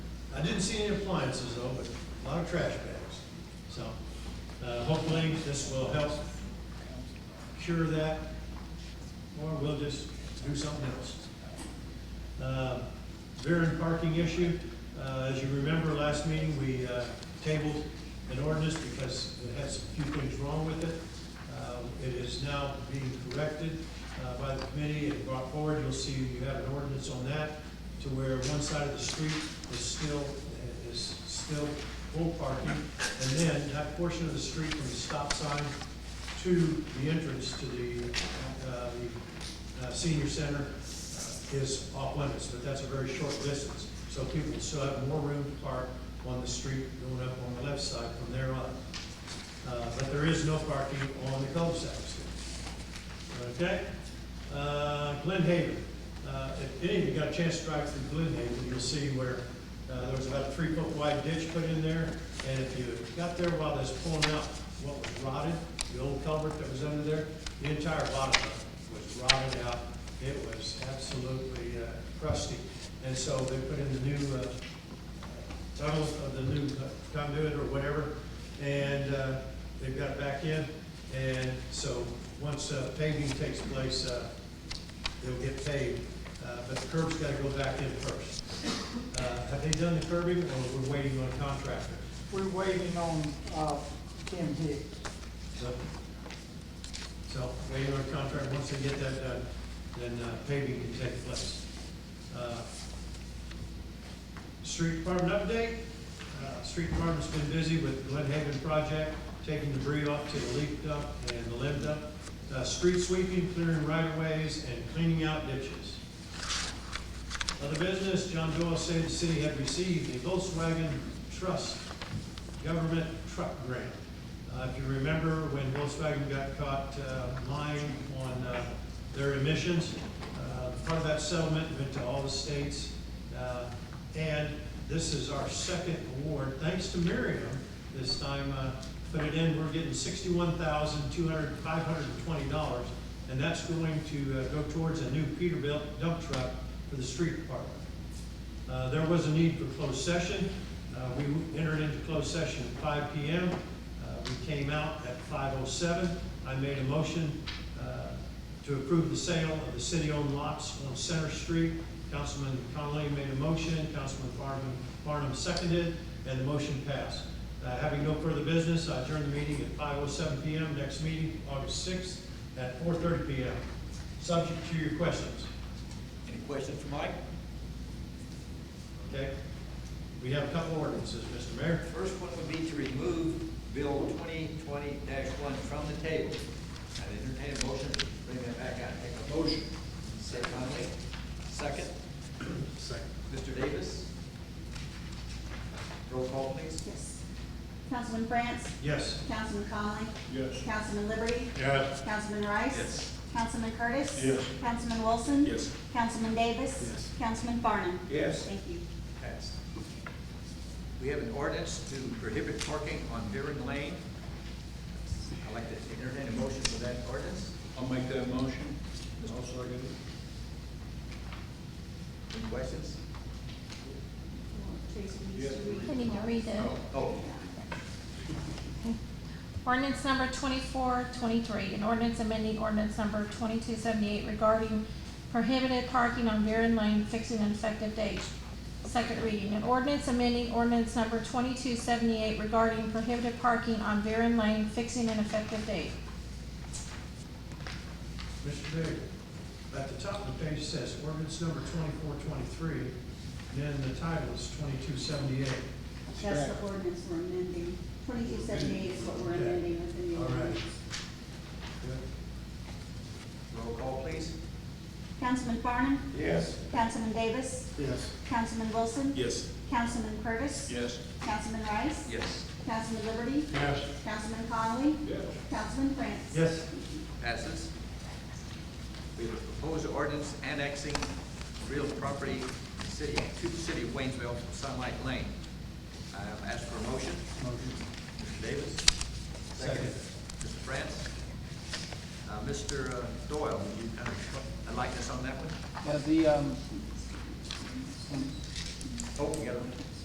I didn't see any appliances though, but a lot of trash bags. So, uh, hopefully this will help cure that, or we'll just do something else. Uh, Variant parking issue, uh, as you remember, last meeting, we uh, tabled an ordinance because it had a few things wrong with it. Uh, It is now being corrected uh, by the committee and brought forward. You'll see you have an ordinance on that to where one side of the street is still, is still full parking. And then that portion of the street from the stop sign to the entrance to the, uh, the uh, senior center uh, is off limits, but that's a very short distance. So people still have more room to park on the street going up on the left side from there on. Uh, But there is no parking on the cul-de-sac streets. Okay? Uh, Glen Haven. Uh, If any of you got a chance to drive through Glen Haven, you'll see where uh, there was about a three-foot wide ditch put in there. And if you got there while they was pulling out what was rotted, the old culvert that was under there, the entire bottom of it was rotted out. It was absolutely uh, crusty. And so they put in the new uh, tunnel of the new conduit or whatever, and uh, they've got it back in. And so, once uh, paving takes place, uh, they'll get paved, Uh, but the curb's gotta go back in first. Uh, Have they done the curbing, or we're waiting on a contractor? We're waiting on, uh, Kim Hicks. So, so waiting on a contract, once they get that done, then uh, paving can take place. Uh, Street department update, Uh, street department's been busy with Glen Haven project, taking debris off to the leak dump and the limb dump. Uh, Street sweeping, clearing right of ways, and cleaning out ditches. Other business, John Doyle said the city had received a Volkswagen Trust government truck grant. Uh, If you remember, when Volkswagen got caught uh, lying on uh, their emissions, uh, part of that settlement went to all the states. Uh, And this is our second award, thanks to Miriam this time, uh, put it in, we're getting sixty-one thousand, two hundred, five hundred and twenty dollars. And that's going to uh, go towards a new Peterbilt dump truck for the street department. Uh, There was a need for closed session. Uh, We entered into closed session at five PM. Uh, We came out at five oh seven. I made a motion uh, to approve the sale of the city-owned lots on Center Street. Councilman Conley made a motion, Councilman Farnum, Farnum seconded, and the motion passed. Uh, Having no further business, I adjourn the meeting at five oh seven PM. Next meeting, August sixth, at four thirty PM. Subject to your questions. Any questions for Mike? Okay? We have a couple ordinances, Mr. Mayor. First one would be to remove Bill twenty twenty one from the table. I entertain a motion to bring that back out. Take a motion. Say Conley. Second. Second. Mr. Davis. Roll call, please. Yes. Councilman France? Yes. Councilman Conley? Yes. Councilman Liberty? Yes. Councilman Rice? Yes. Councilman Curtis? Yes. Councilman Wilson? Yes. Councilman Davis? Yes. Councilman Farnum? Yes. Thank you. Passed. We have an ordinance to prohibit parking on Deering Lane. I'd like to entertain a motion for that ordinance. I'll make that motion. I'll second it. Any questions? I need to read it. Oh, Oh, Ordinance number twenty-four twenty-three, an ordinance amending ordinance number twenty-two seventy-eight regarding prohibited parking on Varian Lane, fixing an effective date. Second reading, an ordinance amending ordinance number twenty-two seventy-eight regarding prohibited parking on Varian Lane, fixing an effective date. Mr. Bailey, at the top of the page it says ordinance number twenty-four twenty-three, then the title is twenty-two seventy-eight. That's the ordinance we're amending. Twenty-two seventy-eight is what we're Okay. amending within the All right. ordinance. roll call, please. Councilman Farnum? Yes. Councilman Davis? Yes. Councilman Wilson? Yes. Councilman Curtis? Yes. Councilman Rice? Yes. Councilman Liberty? Yes. Councilman Conley? Yes. Councilman France? Yes. Passes. We have a proposed ordinance annexing real property to city, to the city of Waynesville from Sunlight Lane. I ask for a motion. Mr. Davis. Second. Mr. France. Uh, Mr. Doyle, would you kind of, I'd like this on that one. Yeah, the, um, Oh, you got one?